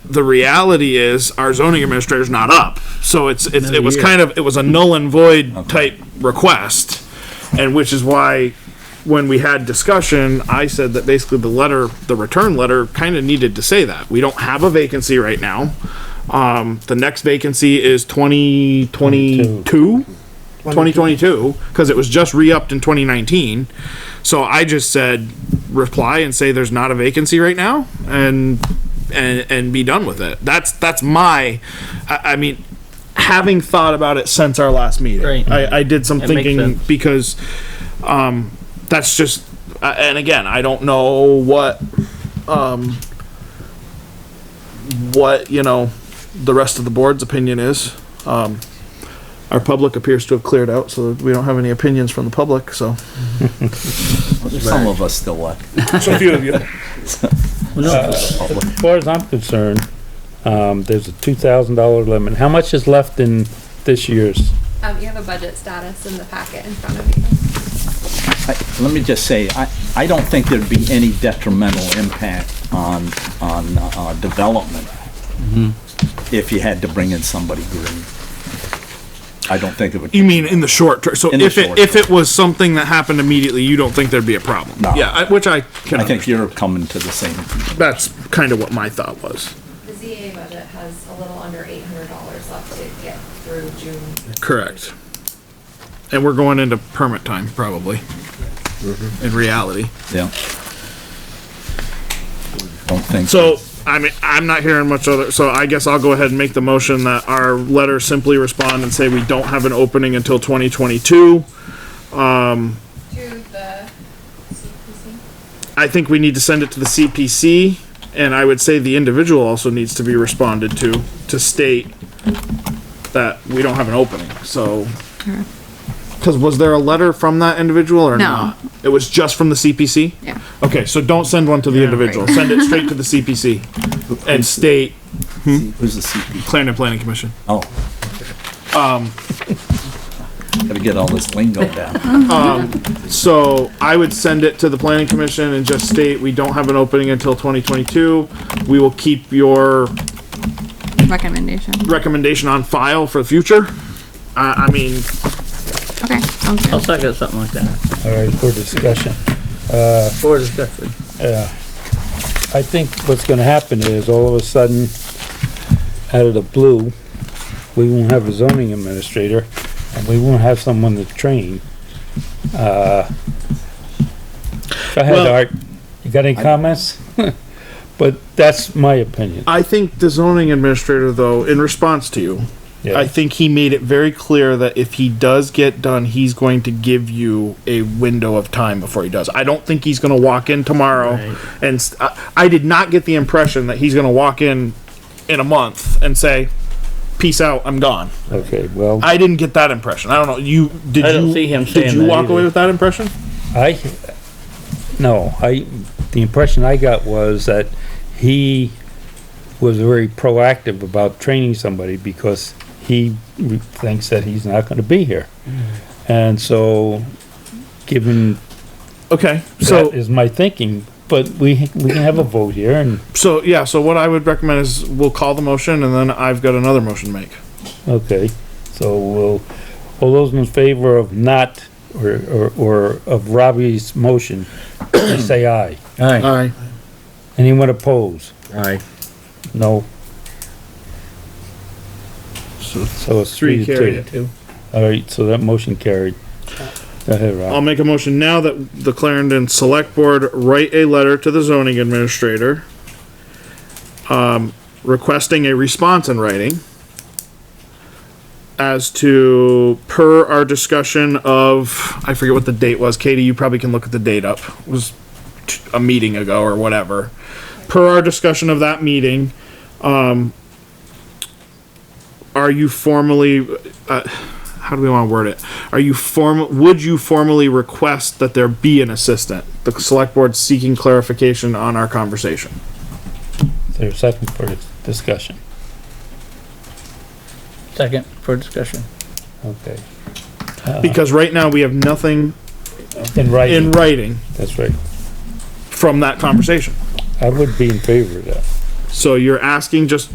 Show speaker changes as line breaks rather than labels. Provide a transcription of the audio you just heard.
the reality is our zoning administrator's not up. So it's, it's, it was
year.
kind of, it was a null and void type request. And which is why when we had discussion, I said that basically the letter, the return letter kind of needed to say that. We don't have a vacancy right now. Um, the next vacancy is twenty twenty-two. 2022 because it was just re-upped in 2019 so i just said reply and say there's not a vacancy right now and and and be done with it that's that's my i, I mean having thought about it since our last meeting
Right.
I, I did some
That makes
thinking
sense.
because um that's just uh, and again i don't know what um what you know the rest of the board's opinion is um our public appears to have cleared out, so we don't have any opinions from the public, so.
Some of us still left.
So a few of you.
As far as I'm concerned, um, there's a two thousand dollar limit. How much is left in this year's?
Um, you have a budget status in the packet in front of you.
I- Let me just say, I, I don't think there'd be any detrimental impact on, on uh, development
Mm-hmm.
if you had to bring in somebody green. I don't think it would.
You mean in the short term, so
In the
if it,
short
if it was something that happened immediately, you don't think there'd be a problem?
No.
Yeah, I- which I can,
I think
understand.
you're coming to the same.
that's kind of what my thought was,
The ZA budget has a little under eight hundred dollars left to get through June.
correct. And we're going into permit time, probably, in reality.
Yeah. Don't think.
So, I mean, I'm not hearing much other, so I guess I'll go ahead and make the motion that our letter simply respond and say we don't have an opening until 2022.
To the CPC?
I think we need to send it to the CPC, and I would say the individual also needs to be responded to, to state that we don't have an opening, so. Cause was there a letter from that individual or
No.
not? It was just from the CPC?
Yeah.
Okay, so don't send one to the individual, send it straight to the CPC and state
Who's the CP?
Clarendon Planning Commission.
Oh. Um. Gotta get all this lingo down.
So I would send it to the planning commission and just state, we don't have an opening until twenty twenty-two. We will keep your
recommendation.
recommendation on file for the future. I, I mean,
Okay, sounds
I'll
good.
second something like that,
All right, for discussion.
for discussion.
I think what's gonna happen is all of a sudden, out of the blue, we won't have a zoning administrator and we won't have someone to train. Uh, go ahead,
Well-
Art. You got any comments? But that's my opinion.
I think the zoning administrator though, in response to you, I think he made it very clear that if he does get done, he's going to give you a window of time before he does. I don't think he's going to walk in tomorrow, and s- I, I did not get the impression that he's going to walk in in a month and say, "Peace out, I'm gone."
Okay, well.
I didn't get that impression. I don't know. You did
I don't
you
see him
did
saying
you
that
walk away
either.
with that impression?
I, no, I, the impression I got was that he was very proactive about training somebody because he thinks that he's not gonna be here. And so, given
Okay, so
that is my thinking, but we, we can have a vote here and,
so yeah. So what I would recommend is we'll call the motion, and then I've got another motion to make.
okay. So we'll, all those in favor of not, or, or, or of Robbie's motion, please say aye.
Aye.
right.
Anyone oppose?
Aye.
No. So, so it's
Three
three
carried
to
it
two. Alright, so that motion carried. Go ahead,
I'll
Rob.
make a motion now that the Clarendon Select Board write a letter to the zoning administrator, um, requesting a response in writing as to per our discussion of, I forget what the date was, Katie, you probably can look at the date up, it was t- a meeting ago or whatever. Per our discussion of that meeting, um, are you formally, how do we want to word it? Are you form? Would you formally request that there be an assistant? The select board seeking clarification on our conversation.
There's a second for this discussion.
Second, for discussion.
Okay.
Because right now we have nothing
In
in
writing,
writing
that's right.
from that conversation.
I would be in favor of that.
So you're asking just